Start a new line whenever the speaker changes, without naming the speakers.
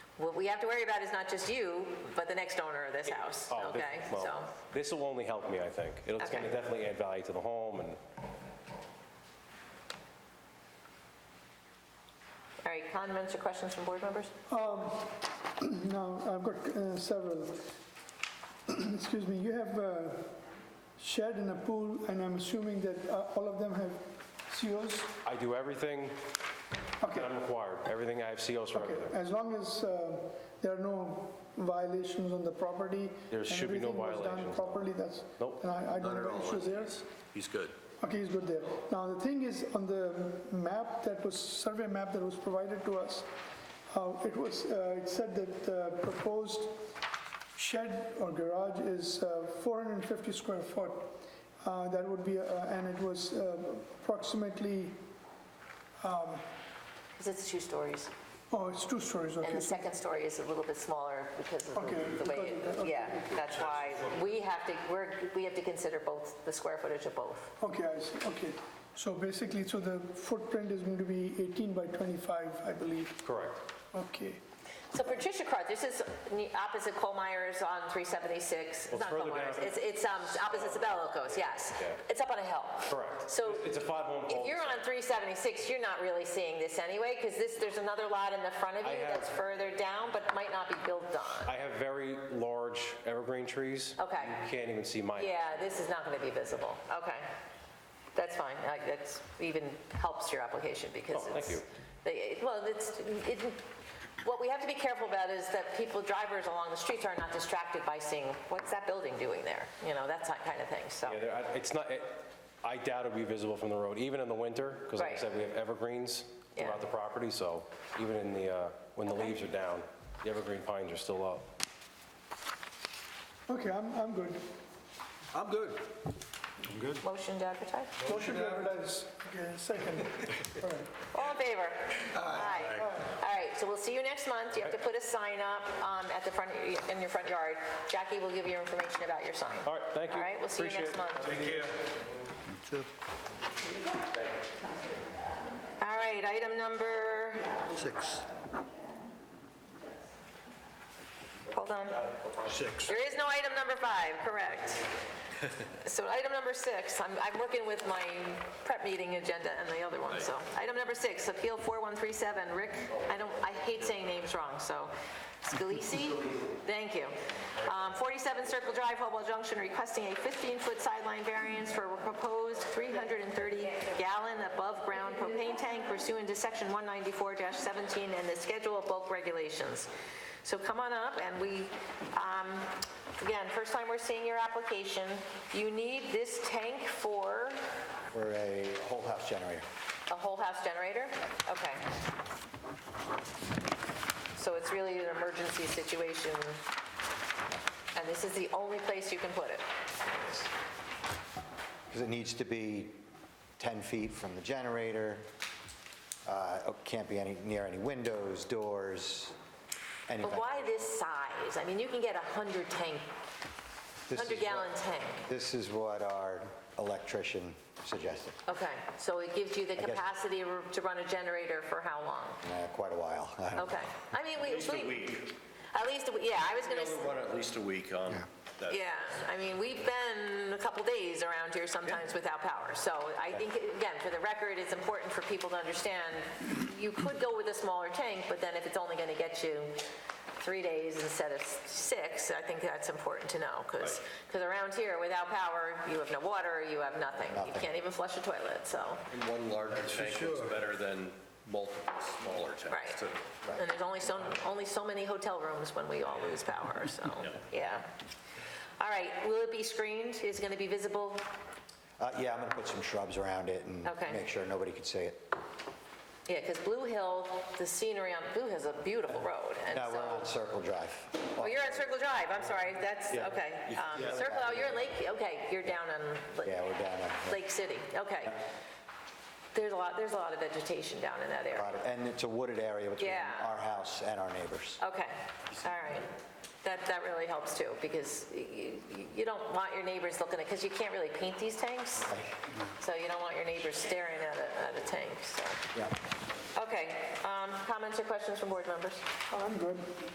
what we have to worry about is not just you, but the next owner of this house,
Oh, this-
okay?
well,
So,
This will only help me, I think. It'll, it's gonna
Okay.
definitely add value to the home and
all right, comments or questions from board members?
No, I've got uh, several. Excuse me, you have a shed and a pool, and I'm assuming that uh, all of them have COs?
I do everything
Okay,
that I'm required, everything, I have COs for
okay,
everything.
as long as uh, there are no violations on the property?
There should be no
And everything
violations, no.
was done properly, that's,
Nope.
and I I don't
Not at
have
all.
issues there?
He's good.
Okay, he's good there. Now, the thing is, on the map that was, survey map that was provided to us, uh, it was, uh, it said that the proposed shed or garage is uh, 450 square foot. Uh, That would be, uh, and it was uh, approximately,
Because it's two stories,
oh, it's two stories, okay.
and the second story is a little bit smaller because of
Okay,
the- the way,
because of
it-
that,
yeah, that's why we have to, we're, we have to consider both, the square footage of both.
Okay, I see, okay. So basically, so the footprint is going to be 18 by 25, I believe.
Correct.
Okay.
So Patricia Carr, this is ne- opposite Cole Myers on 376. It's
Well,
not Cole
further down.
Myers, it's, it's um, opposite Sabelico's, yes.
Yeah.
It's up on a hill.
Correct.
So
It's a five-home
if you're on
cul-de-sac.
376, you're not really seeing this anyway, because this, there's another lot in the front of
I
you
have-
that's further down, but might not be built on.
I have very large evergreen trees.
Okay.
You can't even see mine.
Yeah, this is not going to be visible. Okay. That's fine. Like, That's even helps your application because
Oh, thank
it's.
you.
they- Well, it's, it, what we have to be careful about is that people, drivers along the streets are not distracted by seeing, what's that building doing there? You know, that's that kind of thing, so.
Yeah, there- I- it's not, it- I doubt it'll be visible from the road, even in the winter, because like I
Right.
said, we have evergreens
Yeah.
throughout the property, so even in the, uh, when the leaves are down, the evergreen pines are still up.
Okay, I'm, I'm good.
I'm good.
Motion to advertise?
Motion to advertise. Okay, second. All right.
All in favor? Aye. All right, so we'll see you next month. You have to put a sign up um, at the front, in your front yard. Jackie will give you information about your sign.
All right, thank you.
All right, we'll see you
Appreciate
next
it.
month. All right, item number,
Six.
hold on.
Six.
There is no item number five, correct. So item number six, I'm, I'm working with my prep meeting agenda and the other one, so. Item number six, Appeal 4137, Rick, I don't, I hate saying names wrong, so. Scalisi? Thank you. Um, 47 Circle Drive, Hopewell Junction, requesting a 15-foot sideline variance for a proposed 330-gallon above-ground propane tank pursuant to Section 194-17 and the Schedule of Bulk Regulations. So come on up, and we, um, again, first time we're seeing your application. You need this tank for
for a whole house generator.
a whole house generator? Okay. So it's really an emergency situation, and this is the only place you can put it?
Because it needs to be 10 feet from the generator, uh, it can't be any, near any windows, doors, anything.
But why this size? I mean, you can get a 100 tank,
This is
100 gallon
what-
tank.
This is what our electrician suggested,
Okay, so it gives you the
guess-
capacity to run a generator for how long?
Uh, quite a while. I don't know.
Okay, I mean, we... At least a week. At least, a we- yeah, I was gonna, s-
What, at least a week on that?
yeah, I mean, we've been a couple days around here sometimes without power. So I think, again, for the record, it's important for people to understand, you could go with a smaller tank, but then if it's only gonna get you three days instead of s- six, I think that's important to know, because, around here, without power, you have no water, you have nothing. You can't even flush a toilet, so,
One larger tank is better than multiple smaller
right.
tanks. too.
And there's only so, only so many hotel rooms when we all lose power, so, yeah. All right, will it be screened? Is it gonna be visible?
Uh, Yeah, I'm going to put some shrubs around it and
Okay.
make sure nobody could see it.
Yeah, because Blue Hill, the scenery on Blue Hill is a beautiful road, and
No, we're on
so...
Circle Drive.
Oh, you're at Circle Drive, I'm sorry, that's,
Yeah.
okay. Um, Circle, oh, you're in Lake, okay, you're down on
Yeah,
Lake-
we're down there. yeah.
Lake City, okay. There's a lot, there's a lot of vegetation down in that area.
Lot of- And it's a wooded area between
Yeah.
our house and our neighbors.
Okay, all right. That, that really helps too, because you, you don't want your neighbors looking at, because you can't really paint these tanks, so you don't want your neighbors staring at a, at a tank, so...
Yeah.
Okay, um, comments or questions from board members?
I'm good.